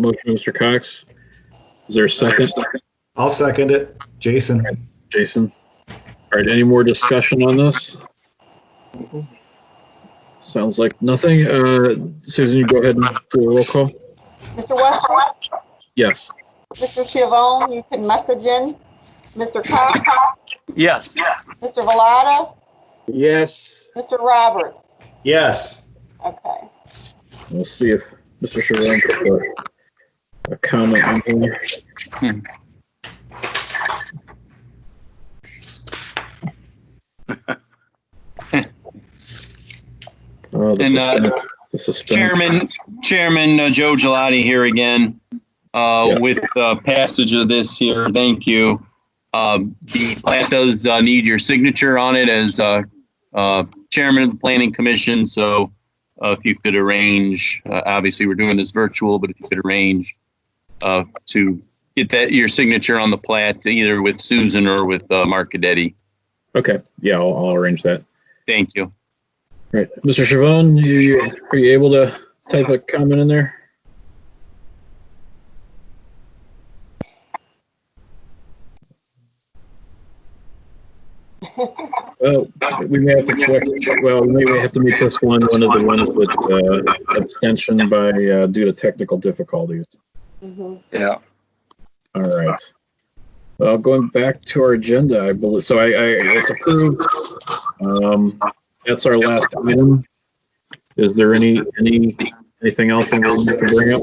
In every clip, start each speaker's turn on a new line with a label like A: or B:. A: Motion, Mr. Cox. Is there a second?
B: I'll second it. Jason?
A: Jason? All right, any more discussion on this? Sounds like nothing. Uh, Susan, you go ahead and do a roll call.
C: Mr. Westbrook,
A: Yes.
C: Mr. Chivone, you can message in. Mr. Cox,
D: Yes.
C: Mr. Velada,
E: Yes.
C: Mr. Roberts.
B: Yes.
C: Okay.
A: We'll see if Mr. Chevron put a- a comment in here.
D: Hmm.
A: Oh, the
D: And, uh,
A: suspense, the suspense.
D: Chairman, Chairman uh, Joe Gelati here again, uh,
A: Yeah.
D: with uh, passage of this here. Thank you. Um, The plat does uh, need your signature on it as uh, uh, Chairman of the Planning Commission. So uh, if you could arrange, uh, obviously, we're doing this virtual, but if you could arrange uh, to get that, your signature on the plat, either with Susan or with uh, Mark Cadetti.
A: Okay, yeah, I'll, I'll arrange that.
D: Thank you.
A: Right, Mr. Chavon, you, you- are you able to type a comment in there? Well, we may have to check, well, we may have to make this one, one of the ones with, uh, abstention by, uh, due to technical difficulties.
C: Mhm.
F: Yeah.
A: All right. Uh, going back to our agenda, I believe, so I, I, it's approved. Um, that's our last item. Is there any, any, anything else anyone wants to bring up?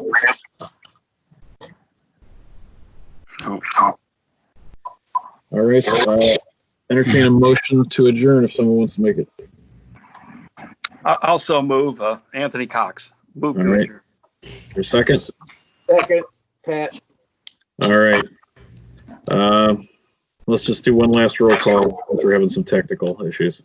A: All right, uh, entertain a motion to adjourn if someone wants to make it.
F: I- I'll so move, uh, Anthony Cox. Move.
A: All right. Your second?
E: Second, Pat.
A: All right. Um, let's just do one last roll call. since We're having some technical issues.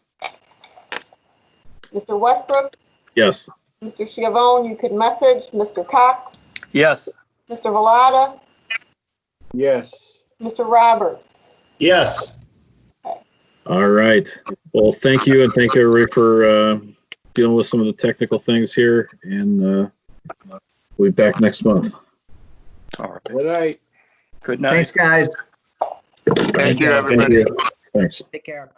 C: Mr. Westbrook,
A: Yes.
C: Mr. Chivone, you can message. Mr. Cox,
F: Yes.
C: Mr. Velada,
E: Yes.
C: Mr. Roberts.
B: Yes.
A: All right. Well, thank you and thank everybody for uh, dealing with some of the technical things here. And uh, we'll be back next month.
F: All right.
E: Good night.
F: Good night.
G: Thanks, guys.
F: Thank you,
A: Thank you. Thanks.
G: Take care.